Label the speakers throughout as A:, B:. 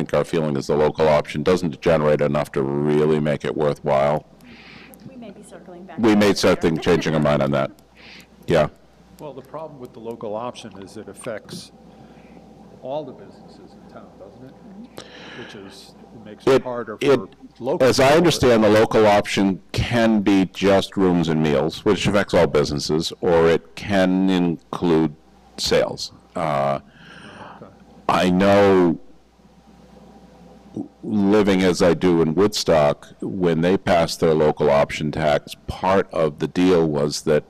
A: think our feeling is the local option doesn't generate enough to really make it worthwhile.
B: We may be circling back.
A: We
B: to
A: may
B: that
A: start
B: later.
A: thinking, changing our mind on that. Yeah,
C: Well, the problem with the local option is it affects all the businesses in town, doesn't it? Which is, it makes it
A: It-
C: harder
A: it-
C: for local.
A: as I understand, the local option can be just rooms and meals, which affects all businesses, or it can include sales. Uh, I know, living as I do in Woodstock, when they passed their local option tax, part of the deal was that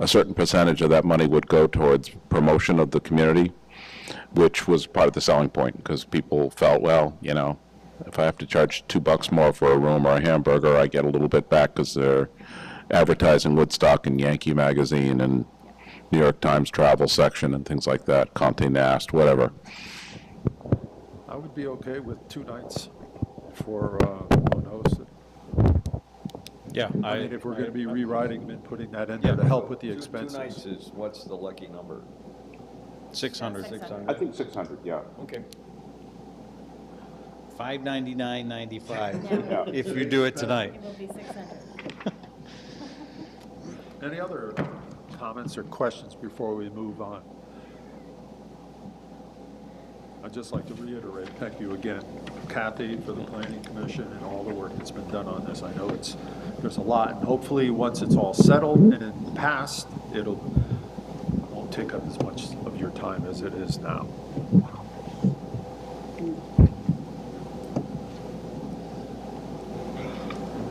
A: a certain percentage of that money would go towards promotion of the community, which was part of the selling point, because people felt, well, you know, if I have to charge two bucks more for a room or a hamburger, I get a little bit back because they're advertising Woodstock in Yankee Magazine and New York Times travel section and things like that, Conte Nast, whatever.
C: I would be okay with two nights for uh, one host.
D: Yeah.
C: I mean, if we're going to be rewriting them and putting that in
D: Yeah.
C: there to help with the
E: Two- Two
C: expenses.
E: nights is, what's the lucky number?
D: 600.
B: Six hundred.
A: I think 600, yeah.
E: Okay.
D: 599.95,
B: Yeah.
D: if you do it tonight.
B: It will be 600.
C: Any other comments or questions before we move on? I'd just like to reiterate, thank you again, Kathy, for the planning commission and all the work that's been done on this. I know it's, there's a lot, and hopefully, once it's all settled and passed, it'll, won't take up as much of your time as it is now.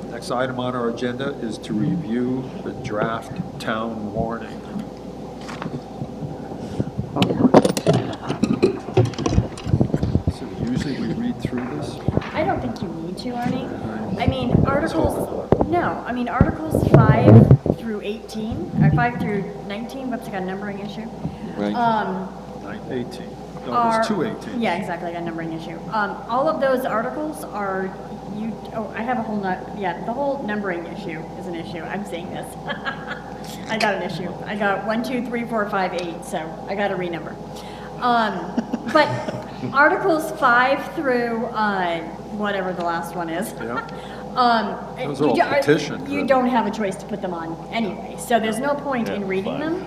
C: Next item on our agenda is to review the draft town warning. So usually we read through this.
B: I don't think you need to, Arnie. I mean, articles, no, I mean, articles five through 18, or five through 19, whoops, I got a numbering issue.
E: Right.
B: Um,
C: Nine eighteen. No,
B: are.
C: it's two eighteen.
B: Yeah, exactly, I got a numbering issue. Um, all of those articles are, you, oh, I have a whole nut, yeah, the whole numbering issue is an issue. I'm seeing this. I got an issue. I got one, two, three, four, five, eight, so I got to renumber. Um, but articles five through, uh, whatever the last one is.
C: Yeah.
B: Um,
C: Those are
B: you
C: all
B: do- are-
C: petitions,
B: You
C: right?
B: don't have a choice to put them on anyway, so there's no point in reading them.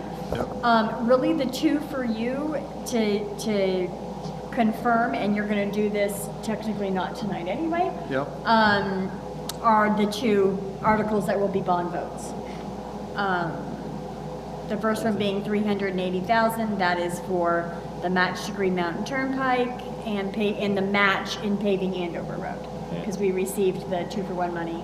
B: Um, really, the two for you to, to confirm, and you're gonna do this technically not tonight anyway.
C: Yep.
B: Um, are the two articles that will be bond votes. Um, the first one being three hundred and eighty thousand, that is for the match to Green Mountain Turnpike and pay, and the match in paving Andover Road. Because we received the two for one money,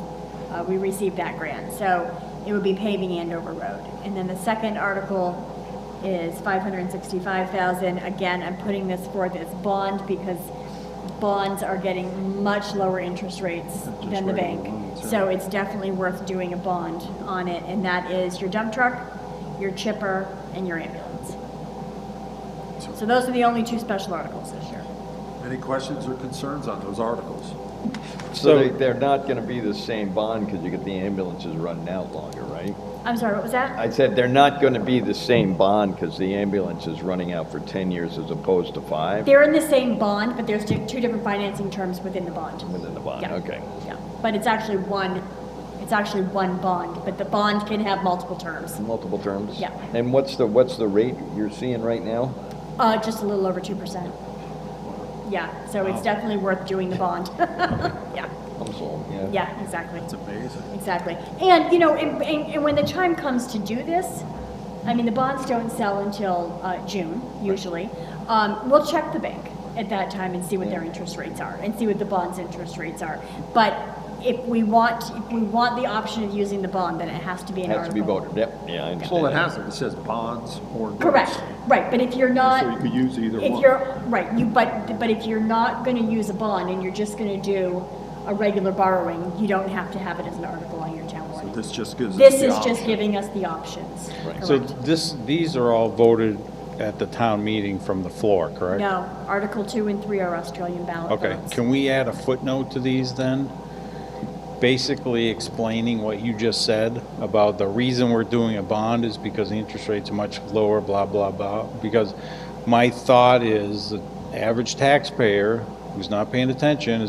B: uh, we received that grant, so it would be paving Andover Road. And then the second article is five hundred and sixty-five thousand, again, I'm putting this forth as bond because bonds are getting much lower interest rates than the
C: rate
B: bank.
C: alone, so-
B: So it's definitely worth doing a bond on it, and that is your dump truck, your chipper, and your ambulance. So those are the only two special articles this year.
C: Any questions or concerns on those articles?
E: So they,
D: So-
E: they're not gonna be the same bond, because you get the ambulances running out longer, right?
B: I'm sorry, what was that?
E: I said they're not gonna be the same bond, because the ambulance is running out for ten years as opposed to five
B: They're in the same bond, but there's two, two different financing terms within the bond.
E: within the bond,
B: Yeah.
E: okay.
B: Yeah, but it's actually one, it's actually one bond, but the bond can have multiple terms.
E: Multiple terms?
B: Yeah.
E: And what's the, what's the rate you're seeing right now?
B: Uh, just a little over two percent. Yeah, so it's definitely worth doing the bond. Yeah,
E: I'm sold, yeah.
B: yeah, exactly.
C: It's amazing.
B: Exactly. And, you know, and, and, and when the time comes to do this, I mean, the bonds don't sell until uh, June, usually. Um, we'll check the bank at that time and see what their interest rates are and see what the bond's interest rates are. But if we want, if we want the option of using the bond, then it has to be an
E: Has to be
B: article.
E: voted, yep, yeah, I understand.
C: Well, it hasn't. It says bonds or. notes.
B: Correct, right, but if you're not.
C: So you could use either
B: If
C: one.
B: you're, right, you, but, but if you're not gonna use a bond and you're just gonna do a regular borrowing, you don't have to have it as an article on your town warning.
C: This just gives us
B: This
C: the
B: is just
C: option.
B: giving us the options.
D: So
B: Correct.
D: this, these are all voted at the town meeting from the floor, correct?
B: No, Article 2 and 3 are Australian ballot
D: Okay,
B: votes.
D: can we add a footnote to these then? Basically explaining what you just said about the reason we're doing a bond is because the interest rate's much lower, blah, blah, blah. Because my thought is the average taxpayer who's not paying attention